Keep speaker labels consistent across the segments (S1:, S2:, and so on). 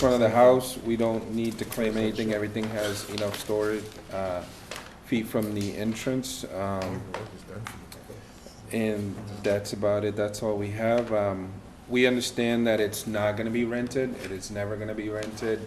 S1: front of the house, we don't need to claim anything, everything has enough storage, uh, feet from the entrance, um, and that's about it, that's all we have. Um, we understand that it's not gonna be rented, it is never gonna be rented.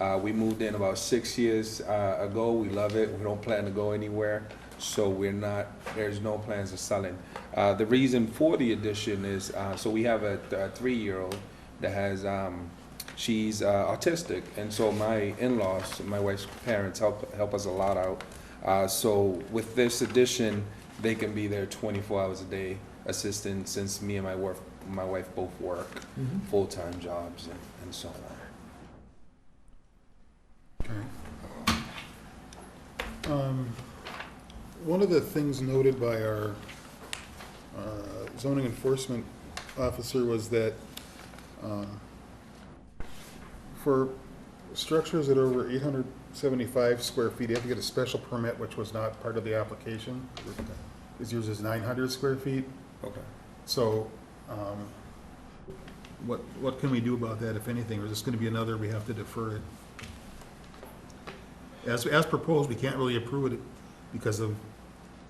S1: Uh, we moved in about six years, uh, ago, we love it, we don't plan to go anywhere, so we're not, there's no plans of selling. Uh, the reason for the addition is, uh, so we have a, a three-year-old that has, um, she's, uh, autistic, and so my in-laws, my wife's parents help, help us a lot out. Uh, so with this addition, they can be there twenty-four hours a day assisting, since me and my wife, my wife both work
S2: Mm-hmm.
S1: full-time jobs and, and so on.
S3: Um, One of the things noted by our uh, zoning enforcement officer was that um, for structures that are over 875 square feet, you have to get a special permit, which was not part of the application. It's used as 900 square feet.
S1: Okay.
S3: So um, what, what can we do about that, if anything? Or is this going to be another, we have to defer it? As, as proposed, we can't really approve it because of,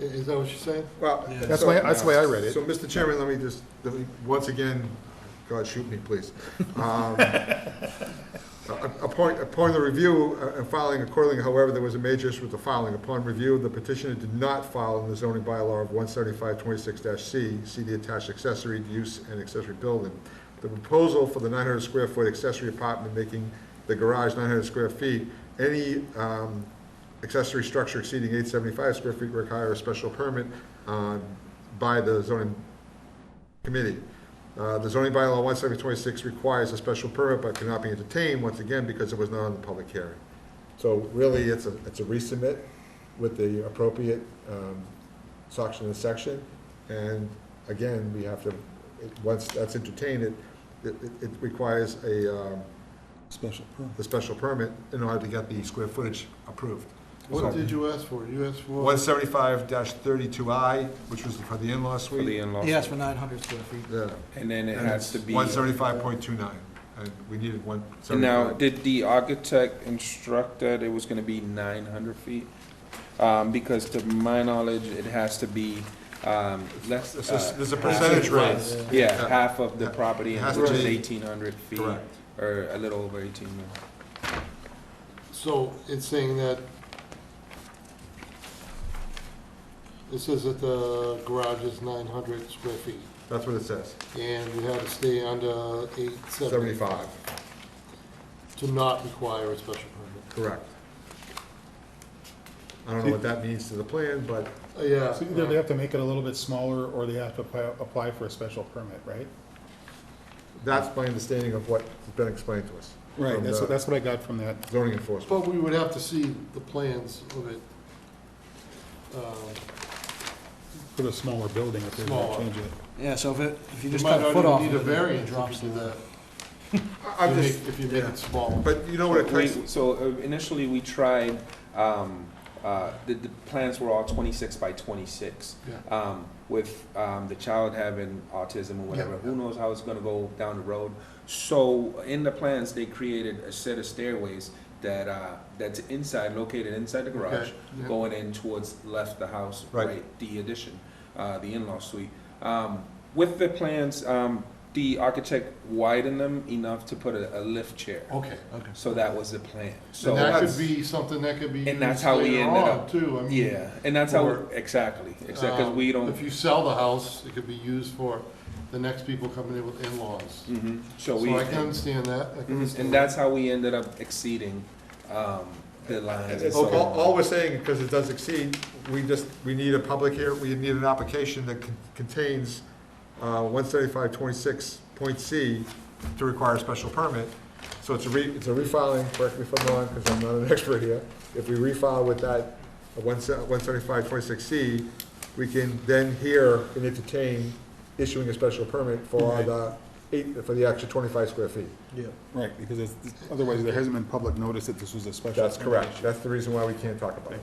S4: I- Is that what you're saying?
S2: Well,
S3: that's
S2: so-
S3: why, that's why I read it.
S2: So, Mr. Chairman, let me just, let me, once again, God, shoot me, please. Um, a- Upon, upon the review uh, and filing accordingly, however, there was a major issue with the filing. Upon review, the petitioner did not file in the zoning bylaw of one seventy-five twenty-six C, see the attached accessory use and accessory building. The proposal for the nine hundred square foot accessory apartment making the garage nine hundred square feet, any, um, accessory structure exceeding eight seventy-five square feet require a special permit, uh, by the zoning committee. Uh, The zoning bylaw 17026 requires a special permit but cannot be entertained, once again, because it was not on the public hearing. So really, it's a, it's a resubmit with the appropriate um, section and section. And again, we have to, it- once that's entertained, it, it it requires a, um,
S3: Special permit.
S2: the special permit in order to get the square footage approved.
S4: What did you ask for? You asked for?
S2: 175-32I, which was for the in-law
S1: For the
S2: suite.
S1: in-laws.
S5: He asked for nine hundred square feet.
S2: Yeah.
S1: And then it
S2: And
S1: has to
S2: it's
S1: be. uh,
S2: 175.29, and we needed one
S1: And Now,
S2: seventy-five.
S1: did the architect instruct that it was gonna be nine hundred feet? Um, because to my knowledge, it has to be, um, less,
S2: This is-
S1: uh,
S2: There's a percentage rate.
S1: yeah, half of the
S2: Yeah.
S1: property,
S2: Uh, It has
S1: which
S2: to
S1: is
S2: be-
S1: eighteen hundred feet.
S2: Correct.
S1: Or a little over eighteen.
S4: So it's saying that it says that the garage is nine hundred square feet,
S2: That's what it says,
S4: and you had to stay under eight seventy
S2: seventy-five,
S4: to not require a special permit.
S2: correct. I don't know what that means to the plan, but
S4: Uh, Yeah.
S3: So either they have to make it a little bit smaller, or they have to apply, apply for a special permit, right?
S2: that's my understanding of what's been explained to us. from
S3: That's,
S2: the
S3: what- that's what I got from that.
S2: Zoning enforcement.
S4: But we would have to see the plans of it. Um,
S3: Put a smaller building if they're gonna
S4: Smaller.
S3: change it.
S5: Yeah, so if it, if you
S4: You
S5: just
S4: might
S5: cut a foot off.
S4: not even need a
S5: of it, it
S4: variance
S5: drops
S4: if you do
S5: the-
S4: that,
S2: I- I'm
S4: if you
S2: just,
S4: make- if you make
S2: yeah.
S4: it small.
S2: but you know what it
S1: We-
S2: takes,
S1: So uh, initially, we tried, um, uh, the, the plans were all twenty-six by twenty-six.
S4: Yeah.
S1: Um, with, um, the child having autism or whatever,
S4: Yeah.
S1: who knows how it's gonna go down the road. So in the plans, they created a set of stairways that, uh, that's inside, located inside the garage,
S4: Okay, yeah.
S1: going in towards left the house,
S2: Right.
S1: right, the addition, uh, the in-law suite. Um, with the plans, um, the architect widened them enough to put a, a lift chair.
S4: Okay, okay.
S1: So that was the plan. So
S4: And that
S2: that's-
S4: could be something that could be
S1: And that's
S4: used
S1: how we
S4: later
S1: ended
S4: on,
S1: up-
S4: Too, I mean.
S1: yeah, and that's how
S4: Or-
S1: exactly exactly because
S4: um,
S1: we don't.
S4: If you sell the house, it could be used for the next people coming in with in-laws.
S1: Mhm. So we
S4: So I can understand that, I can
S1: Mhm.
S4: understand.
S1: and that's how we ended up exceeding um, the lines. and
S2: It's-
S1: so
S2: All,
S1: on.
S2: all we're saying, because it does exceed, we just, we need a public here, we need an application that con- contains uh, one seventy-five twenty-six point C to require a special permit. So it's a re, it's a refiling, correct me if I'm wrong, because I'm not an expert here. If we refile with that uh, one seventy-five twenty-six C, we can then hear and entertain issuing a special permit for the eight, for the extra twenty-five square feet.
S3: Right, because it's, otherwise there hasn't been public notice that this was a special.
S2: That's
S3: permit
S2: correct.
S3: issue.
S2: That's the reason why we can't talk about it.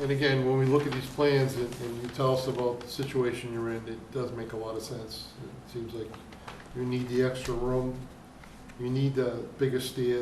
S4: And again, when we look at these plans and, and you tell us about the situation you're in, it does make a lot of sense. It seems like you need the extra room, you need the bigger stairs.